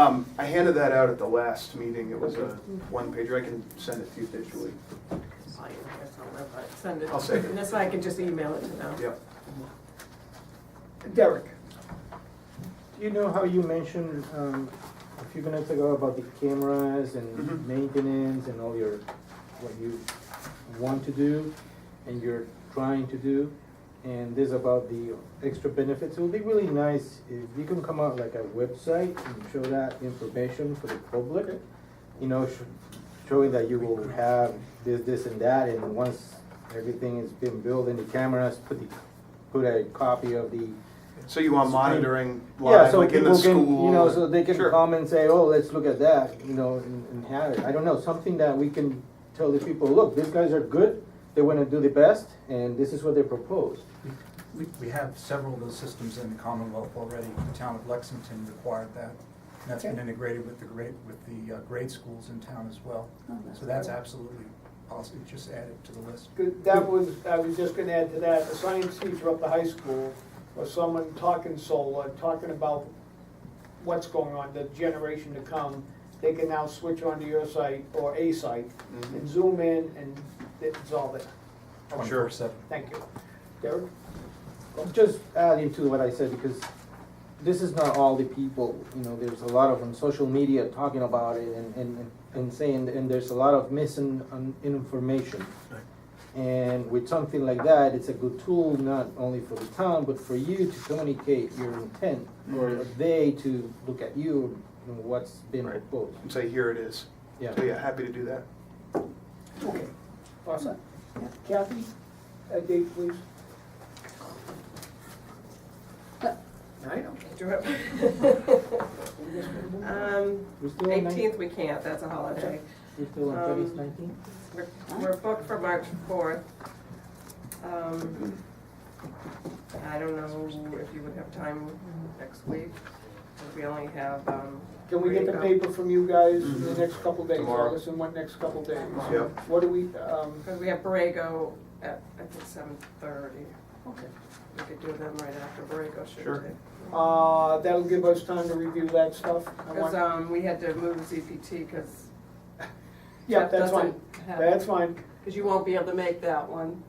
Um, I handed that out at the last meeting, it was a one pager, I can send it to you digitally. I guess I'll never Send it. I'll save it. And that's why I can just email it to them. Yep, Derek, do you know how you mentioned um, a few minutes ago about the cameras Mhm. and maintenance and all your, what you want to do and you're trying to do? And this about the extra benefits, it would be really nice if you can come out like a website and show that information for the public. You know, sh- showing that you will have this, this and that, and once everything has been built and the cameras, put the, put a copy of the so you want monitoring yeah, live, so like in people the can, school? you know, so they can Sure. come and say, oh, let's look at that, you know, and, and have it. I don't know, something that we can tell the people, look, these guys are good, they want to do the best, and this is what they propose. We, we have several of those systems in the Commonwealth already. The town of Lexington required that. And that's been Okay. integrated with the grade, with the uh, grade schools in town as well. So that's absolutely possible, just add it to the list. Good, That was, I was just gonna add to that, a science teacher up the high school, or someone talking solar, talking about what's going on, the generation to come, they can now switch onto your site or a site Mm-hmm. and zoom in and it's all there. Twenty-four seven. Thank you. Derek? Just adding to what I said, because this is not all the people, you know, there's a lot of on social media talking about it and, and, and saying, and there's a lot of missing um, information. And with something like that, it's a good tool, not only for the town, but for you to communicate your intent, or they to look at you and what's been Right. proposed, And say, here it is. yeah. So yeah, happy to do that. Okay. Awesome. Kathy, a date please. I don't do it. Um, We're still on nine- eighteenth we can't, that's a holiday. We're still on um, thirty nineteen? We're, we're booked for March fourth. Um, I don't know if you would have time next week, 'cause we only have, um, Can we get the There you go. paper from you guys in the next couple days, Mm-hmm. Tomorrow. August and what next couple days? Yep. What do we, um, because we have Borrego at, I think, seven thirty. okay. We could do them right after Borrego should Sure. take. Uh, that'll give us time to review that stuff. I Because, want- um, we had to move ZPT because Yeah, Jeff that's fine, doesn't have, that's fine. because you won't be able to make that one.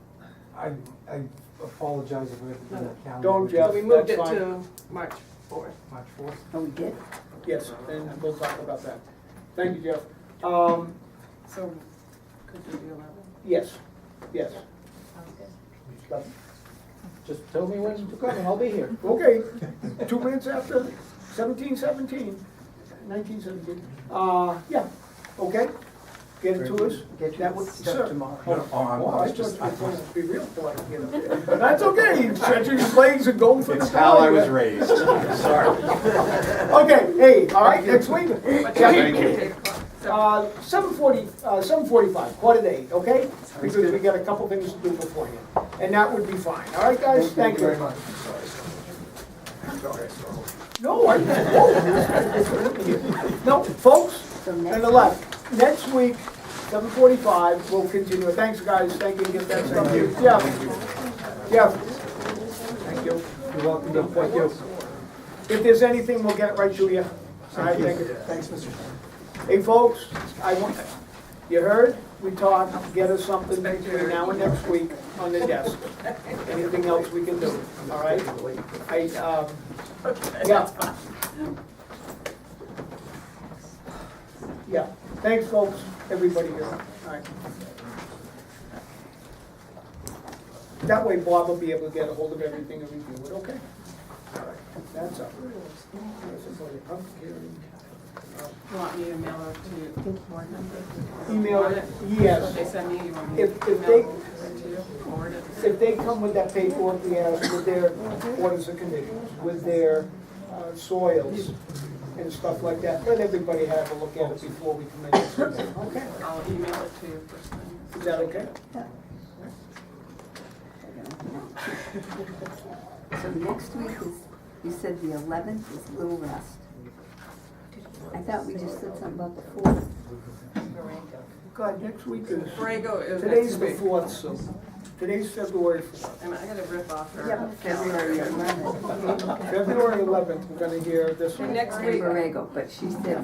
I, I apologize if we have to do the calendar. Don't, with So Jeff. we moved it that's fine. to March fourth. March fourth. Oh, we did? Yes, and we'll talk about that. Thank you, Jeff. Um, So could do the eleventh. yes, yes. Just tell me when to come and I'll be here. Okay, two minutes after seventeen seventeen, nineteen seventeen. Uh, yeah, okay, get it to us. Get That would, sir. No, oh, I'm- I Well, was I just- just, I going to be real polite, you know. But that's okay, stretching your legs and going for the. time, yeah. raised, sorry. Okay, hey, all right, next week. Thank you. Uh, seven forty, uh, seven forty-five, quarter to eight, okay? Because we got a couple things to do beforehand, and that would be fine, all right, guys? Thank you very much. No, I, whoa. No, folks, So on next the left, next week, seven forty-five, we'll continue. Thanks, guys, thank you, get that stuff. Jeff, Jeff. Thank you. You're welcome to Thank you. If there's anything, we'll get it right to you. All right, thank you. Thanks, Mr. Chairman. Hey, folks, I want, you heard, we talked, get us something between now and next week on the desk. Anything else we can do, all right? I, um, yeah. Yeah, thanks, folks, everybody here, all right. That way Bob will be able to get a hold of everything and review it, okay? All right, that's up. You want me to mail it to you? Board member? Email Want it, yes. What they send me, you want me to If- if email they- it to you? Forward it? If they come with that paperwork we asked with their orders and conditions, with their uh, soils and stuff like that, let everybody have a look at it before we commit to something. Okay, I'll email it to you first thing. is that okay? So next week is, you said the eleventh is Little Rest. I thought we just said something about the fourth. God, next week is, Borrego is today's next the week. fourth, so Today's February fourth. And I gotta rip off Yeah, her February calendar. eleventh. February eleventh, we're gonna hear this The one. next It's in week, Borrego, but she said